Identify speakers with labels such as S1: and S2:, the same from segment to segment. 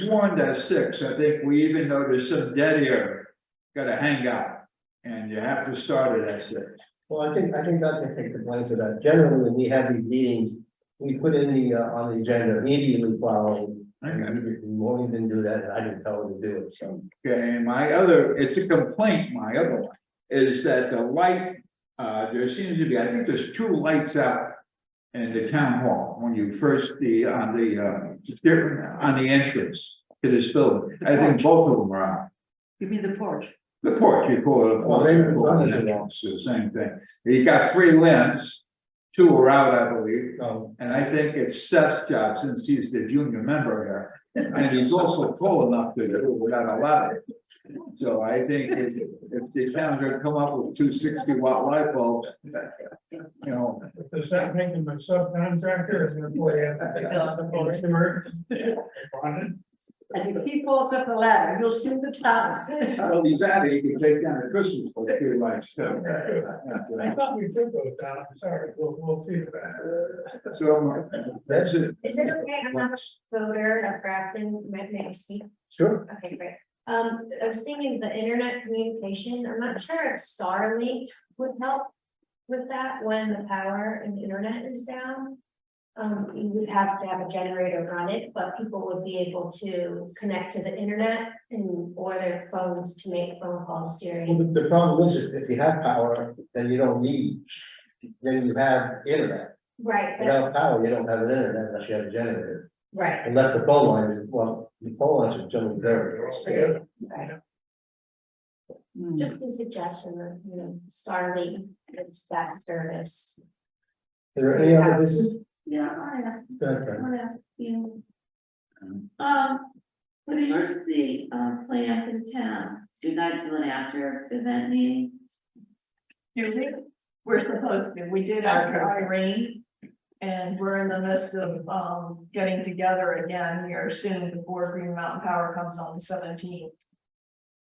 S1: sworn to six, I think we even know there's some dead air, gotta hang out. And you have to start it at six.
S2: Well, I think, I think I can take the blame for that. Generally, when we have these meetings, we put in the, uh, on the agenda immediately following. And
S1: Okay,
S2: we didn't- we won't even do that, and I didn't tell them to do it, so.
S1: and my other, it's a complaint, my other one, is that the light, uh, there seems to be, I think there's two lights out. In the town hall, when you first, the, on the, uh, on the entrance to this building, I think both of them are out.
S3: You mean the porch?
S1: The porch, you call it. a
S2: Well, maybe the
S1: porch,
S2: front is wrong.
S1: It's the same thing. You got three limbs, two are out, I believe,
S2: Um,
S1: and I think it's Seth's job since he's the junior member here. And he's also tall enough to do it without a lot of it. So I think if, if the town could come up with two sixty watt light bulbs, you know,
S4: Does that make him a subcontractor as an employee? Bonded?
S3: And if he falls up a ladder, you'll see the top.
S1: tell these out, you can take down the Christmas, but if you like, so.
S4: I thought we did go down, I'm sorry, we'll, we'll see that.
S1: So that's it.
S5: Is it okay, I'm not a voter of Grafton, may may I speak?
S2: Sure.
S5: Okay, great. Um, I was thinking the internet communication, I'm not sure if Starlink would help with that when the power and the internet is down. Um, you would have to have a generator run it, but people would be able to connect to the internet and or their phones to make phone calls
S2: well,
S5: during.
S2: The the problem is, is if you have power, then you don't need, then you have internet.
S5: Right, but-
S2: Without power, you don't have an internet unless you have a generator,
S5: right,
S2: unless the phone line is, well, the phone lines are generally very.
S5: right. Just a suggestion of, you know, Starlink, it's that service.
S2: Is there any other business?
S6: Yeah, I wanna ask,
S2: Go ahead,
S6: I
S2: Fran.
S6: wanna ask you. Um, with the emergency, um, plan for the town, do you guys do an after event meeting?
S3: Do we? We're supposed to, we did after Irene. And we're in the midst of um getting together again here soon before Green Mountain Power comes on the seventeenth.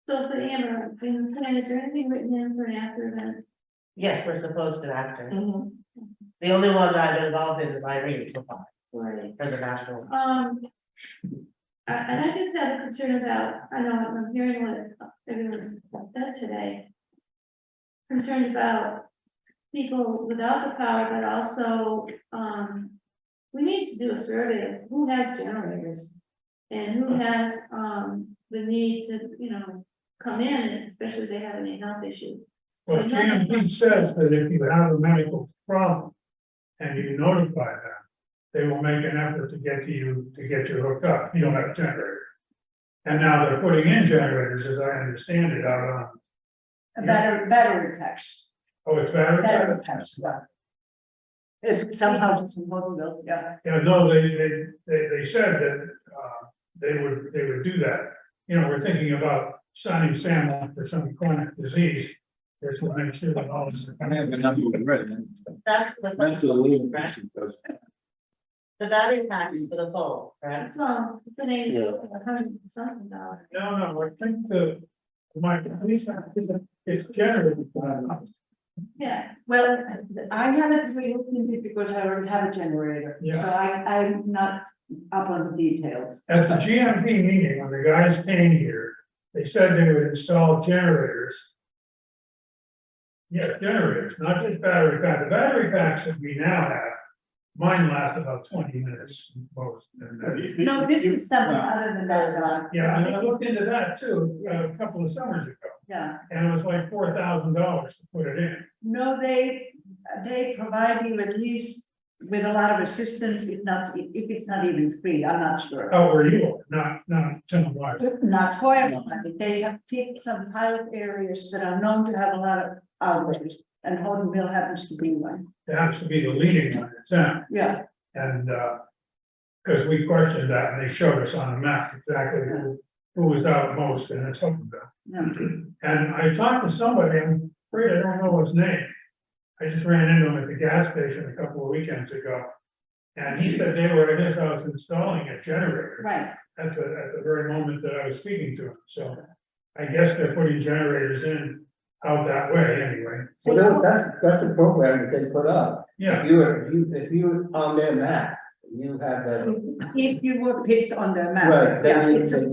S6: So for the emergency plan, is there anything written in for an after event?
S7: Yes, we're supposed to after.
S3: Well,
S7: The only one that I'm involved in is Irene so far,
S6: Right.
S7: for the national.
S6: Um. I- And I just had a concern about, I know I'm hearing what everyone's said today. Concerned about people without the power, but also, um. We need to do a survey of who has generators. And who has, um, the need to, you know, come in, especially if they have any health issues.
S4: Well, GMP says that if you have a medical problem and you notify them, they will make an effort to get to you, to get you hooked up, you don't have a generator. And now they're putting in generators, as I understand it, out on,
S3: A better, better text,
S4: oh, it's battery.
S3: better text, yeah. If somehow it's impossible, yeah.
S4: Yeah, no, they, they, they, they said that, uh, they would, they would do that. You know, we're thinking about signing Sam up for some chronic disease. There's one, I'm sure that all this.
S1: I have a number of residents,
S7: That's for the. phone,
S1: mental
S7: right?
S1: illness. does-
S7: The value tax is for the phone, right?
S6: So, it's an eighty, a hundred and something dollars.
S4: No, no, I think the, my, at least I think it's generated.
S6: Yeah,
S3: Well, I haven't really looked into it because I already have a generator, so
S4: Yeah.
S3: I I'm not up on the details.
S4: At the GMP meeting, when the guys came here, they said they would install generators. Yeah, generators, not just battery pack. The battery packs that we now have, mine last about twenty minutes most. and that-
S3: No, this is something other than that, uh, Don.
S4: Yeah, and I looked into that too, uh, a couple of summers ago,
S3: Yeah.
S4: and it was like four thousand dollars to put it in.
S3: No, they, they provide you at least with a lot of assistance, if not, if it's not even free, I'm not sure.
S4: How were you? Not, not ten dollars.
S3: Not for everybody, they have picked some pilot areas that are known to have a lot of outbreaks, and Hortonville happens to be one,
S4: It has to be the leading one in town.
S3: yeah.
S4: And, uh, because we questioned that and they showed us on a map exactly who, who was out most and it's Hopkinville.
S3: yeah.
S4: And I talked to somebody, I'm afraid I don't know his name. I just ran into him at the gas station a couple of weekends ago. And he said they were at his house installing a generator
S3: Right,
S4: at the, at the very moment that I was speaking to him, so. I guess they're putting generators in out that way anyway,
S2: Well, that- that's, that's a program that they put up.
S4: yeah.
S2: If you were, if you, if you were on their map, you have that,
S3: If you were picked on the map.
S2: right,
S3: yeah,
S2: then you,
S3: it's a-
S2: then